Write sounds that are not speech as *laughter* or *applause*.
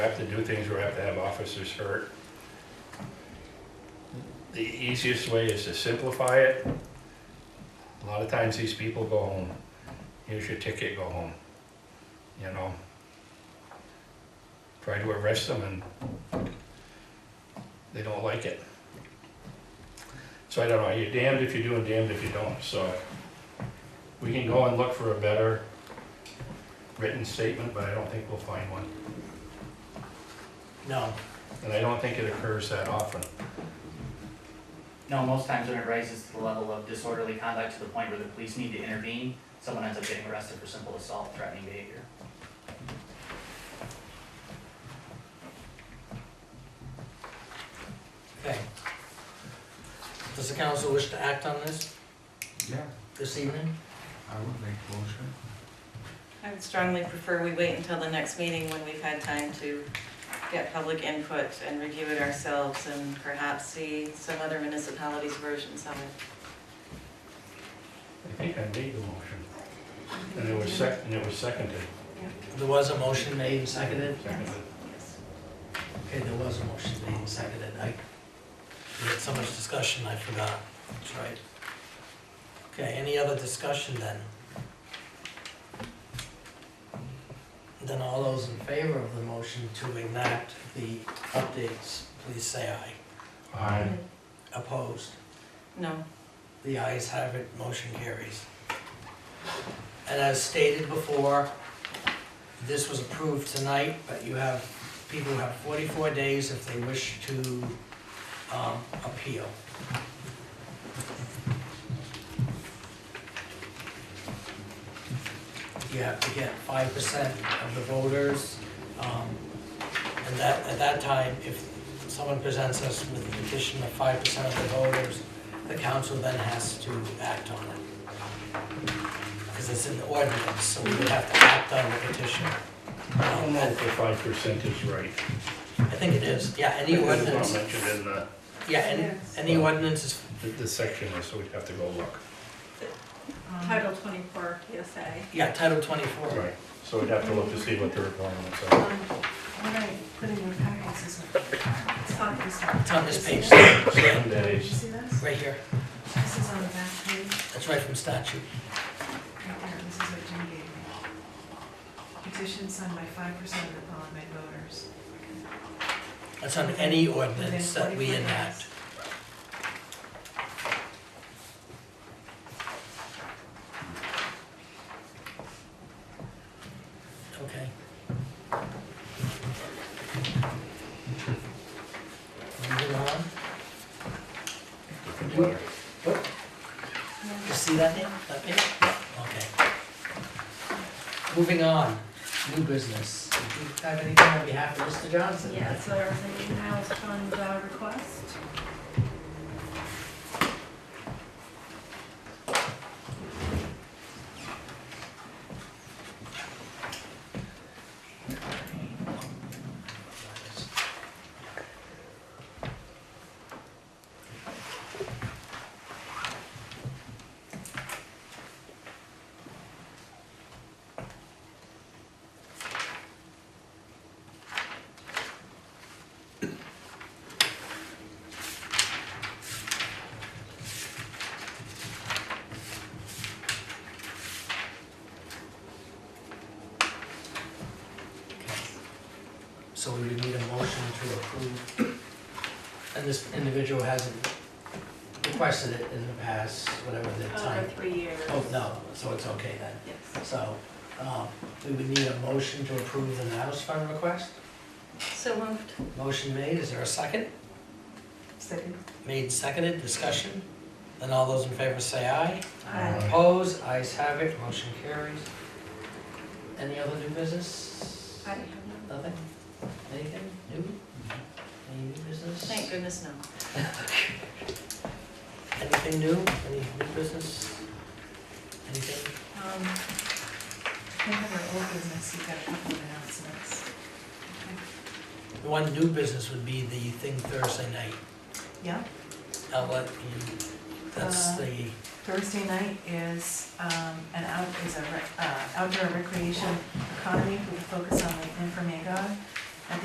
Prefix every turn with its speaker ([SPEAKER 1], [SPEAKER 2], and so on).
[SPEAKER 1] We have to do things where we have to have officers hurt. The easiest way is to simplify it. A lot of times these people go home. Here's your ticket, go home. You know? Try to arrest them and they don't like it. So I don't know, you're damned if you do and damned if you don't, so we can go and look for a better written statement, but I don't think we'll find one.
[SPEAKER 2] No,
[SPEAKER 1] And I don't think it occurs that often.
[SPEAKER 2] no, most times when it rises to the level of disorderly conduct to the point where the police need to intervene, someone ends up getting arrested for simple assault, threatening behavior.
[SPEAKER 3] Okay. Does the council wish to act on this,
[SPEAKER 4] Yeah,
[SPEAKER 3] this evening?
[SPEAKER 4] I would make motion.
[SPEAKER 5] I would strongly prefer we wait until the next meeting when we've had time to get public input and review it ourselves and perhaps see some other municipalities' versions of it.
[SPEAKER 1] I think I made the motion. And it was sec, and it was seconded.
[SPEAKER 3] There was a motion made and seconded?
[SPEAKER 1] Seconded.
[SPEAKER 5] Yes.
[SPEAKER 3] Okay, there was a motion made and seconded. I, we had so much discussion, I forgot. That's right. Okay, any other discussion then? Then all those in favor of the motion to enact the updates, please say aye.
[SPEAKER 1] Aye.
[SPEAKER 3] Opposed?
[SPEAKER 5] No,
[SPEAKER 3] The ayes have it, motion carries. And as stated before, this was approved tonight, but you have, people have 44 days if they wish to um, appeal. You have to get 5% of the voters. um, And that, at that time, if someone presents us with a petition of 5% of the voters, the council then has to act on it. Because it's in the ordinance, so we would have to act on the petition.
[SPEAKER 1] I don't know if the five percent is right.
[SPEAKER 3] I think it is, yeah, any
[SPEAKER 1] It's not
[SPEAKER 3] ordinance,
[SPEAKER 1] mentioned in the,
[SPEAKER 3] yeah, any, any ordinance is,
[SPEAKER 1] the- the section, so we'd have to go look.
[SPEAKER 6] Title twenty-four PSA.
[SPEAKER 3] yeah, Title 24.
[SPEAKER 1] Right, so we'd have to look to see what the requirements are.
[SPEAKER 6] What I put in your packets is. It's on this one.
[SPEAKER 3] It's on this page,
[SPEAKER 1] Seven
[SPEAKER 6] Did you
[SPEAKER 1] days.
[SPEAKER 6] see this?
[SPEAKER 3] right here,
[SPEAKER 6] This is on the back page,
[SPEAKER 3] that's right from statute.
[SPEAKER 6] right there, this is what Jim gave me. Petition signed by five percent of the qualified voters.
[SPEAKER 3] That's on any
[SPEAKER 6] within
[SPEAKER 3] ordinance that we
[SPEAKER 6] 44 days.
[SPEAKER 3] enact. Okay. Moving on. Oh, You see that name, that page? Okay. Moving on, new business. Do you have anything on behalf of Mr. Johnson?
[SPEAKER 6] Yeah, so everything in-house fund uh, request.
[SPEAKER 3] So we would need a motion to approve. *coughs* And this individual hasn't requested it in the past, whatever the
[SPEAKER 6] Over
[SPEAKER 3] time.
[SPEAKER 6] three years.
[SPEAKER 3] Oh, no, so it's okay then.
[SPEAKER 6] Yes.
[SPEAKER 3] So, um, we would need a motion to approve the Natus Fund request.
[SPEAKER 5] so moved.
[SPEAKER 3] Motion made, is there a second?
[SPEAKER 6] Second.
[SPEAKER 3] Made, seconded, discussion? Then all those in favor say aye.
[SPEAKER 1] Aye.
[SPEAKER 3] Opposed, ayes have it, motion carries. Any other new business?
[SPEAKER 6] I have no.
[SPEAKER 3] Nothing? Anything new? Any new business?
[SPEAKER 5] Thank goodness, no.
[SPEAKER 3] Anything new? Any new business? Anything?
[SPEAKER 6] Um, I have our old business, you've got a couple of announcements.
[SPEAKER 3] The one new business would be the thing Thursday night.
[SPEAKER 6] Yeah,
[SPEAKER 3] I'll let you, that's
[SPEAKER 6] Uh,
[SPEAKER 3] the,
[SPEAKER 6] Thursday night is, um, an out, is a, rec- uh, outdoor recreation economy with a focus on Lake Nymphomagog.